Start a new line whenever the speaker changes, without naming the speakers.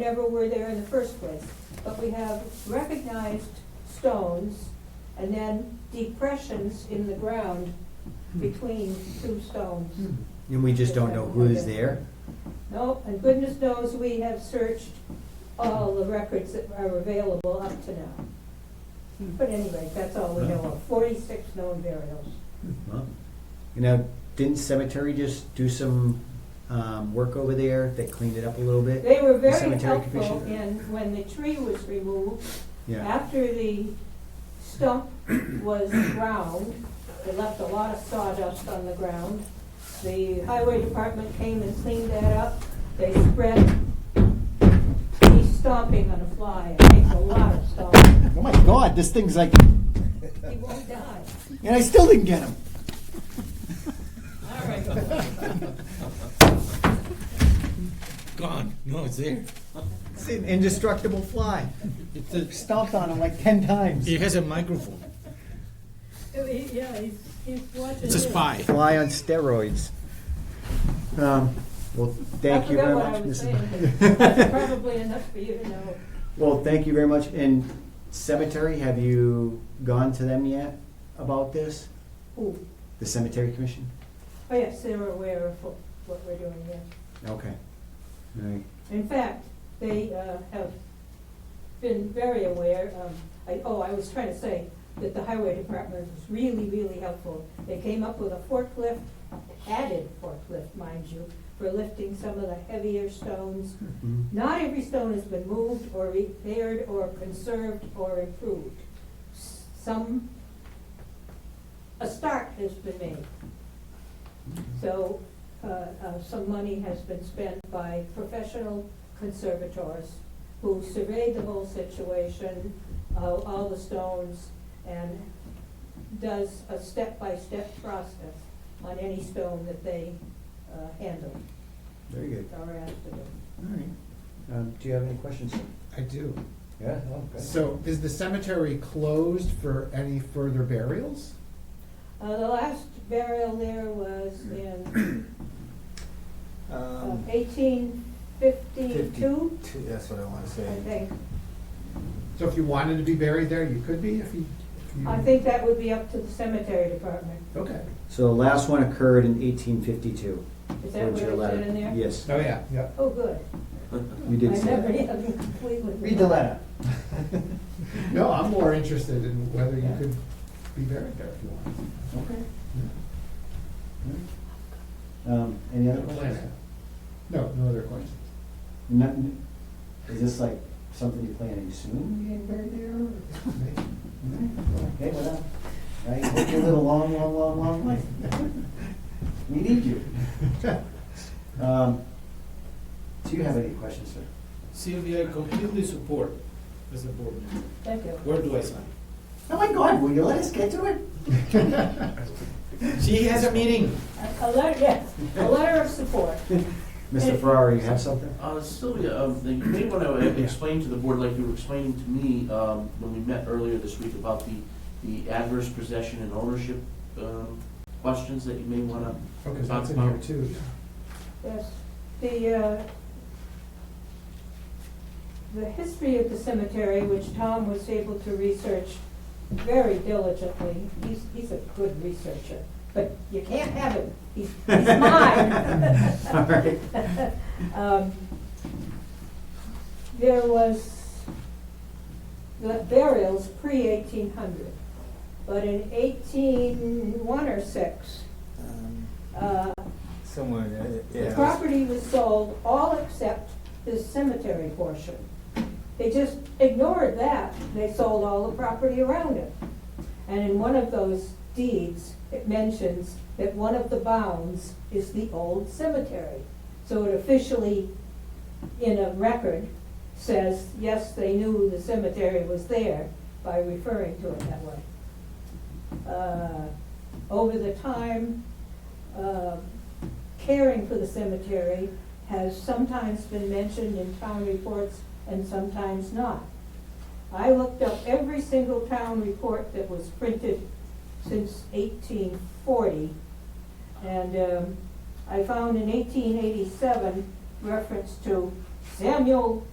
never were there in the first place. But we have recognized stones and then depressions in the ground between two stones.
And we just don't know who's there?
No, and goodness knows we have searched all the records that are available up to now. But anyway, that's all we know of, forty-six known burials.
Well, You know, didn't cemetery just do some um, work over there? They cleaned it up a little bit?
They were very
Cemetery
helpful
Commission.
in, when the tree was removed,
Yeah.
After the stump was ground, it left a lot of sawdust on the ground. The highway department came and cleaned that up. They spread, he's stomping on a fly, it makes a lot of stomping.
Oh my god, this thing's like,
He won't die.
and I still didn't get him.
All right.
Gone. No, it's there.
It's an indestructible fly.
It's a,
Stomped on him like 10 times.
it has a microphone.
Yeah, he's, he's watching.
It's a spy.
Fly on steroids. Um, Well, thank you very much,
I forgot
Mrs.
what I was saying,
Bynum.
but that's probably enough for you to know.
Well, thank you very much. And cemetery, have you gone to them yet about this?
Ooh,
The cemetery commission?
Oh, yes, they were aware of what what we're doing, yes.
Okay. All right.
In fact, they uh, have been very aware of, I- oh, I was trying to say that the highway department was really, really helpful. They came up with a forklift, added forklift, mind you, for lifting some of the heavier stones.
Mhm.
Not every stone has been moved or repaired or conserved or improved. S- Some, a start has been made. So, uh, uh, some money has been spent by professional conservators who surveyed the whole situation, uh, all the stones, and does a step-by-step process on any stone that they uh, handle
Very good.
or asked to do.
All right. Um, Do you have any questions?
I do.
Yeah? oh,
So is the cemetery closed for any further burials?
Uh, The last burial there was in
Um,
eighteen fifty-two,
two- That's what I want to
I
say.
think.
So if you wanted to be buried there, you could be if you. if you-
I think that would be up to the cemetery department.
Okay.
So the last one occurred in eighteen fifty-two.
Is that where it's in there?
Yes,
Oh, yeah, yeah.
Oh, good.
you
My
did say that.
memory of it completely.
Read the letter.
No, I'm more interested in whether you could be buried there if you want.
Okay. Um, any other questions?
No, no other questions.
Nothing, is this like something you plan, are you soon getting buried there? Okay, well, uh, now, right, hope you live a long, long, long, long life. We need you. Um, do you have any questions, sir?
Sylvia, I completely support as a board member.
Thank you.
Where do I sign?
Oh my God, will you let us get to it?
She has a meeting.
A- A letter, yes, a letter of support.
Mr. Ferrari, you have something?
Uh, Sylvia, um, the- you may want to explain to the board, like you were explaining to me, um, when we met earlier this week about the, the adverse possession and ownership, um, questions that you may want to
Okay, that's in here too.
Yes, the, uh, the history of the cemetery, which Tom was able to research very diligently, he's, he's a good researcher, but you can't have him, he's, he's mine.
All right.
Um, There was the burials pre eighteen hundred, but in eighteen one or six,
Um,
uh,
Somewhere, uh,
the
yeah.
property was sold, all except the cemetery portion. They just ignored that, they sold all the property around it. And in one of those deeds, it mentions that one of the bounds is the old cemetery. So it officially, in a record, says, yes, they knew the cemetery was there by referring to it that way. Uh, Over the time, uh, caring for the cemetery has sometimes been mentioned in town reports and sometimes not. I looked up every single town report that was printed since eighteen forty. And um, I found in eighteen eighty-seven reference to Samuel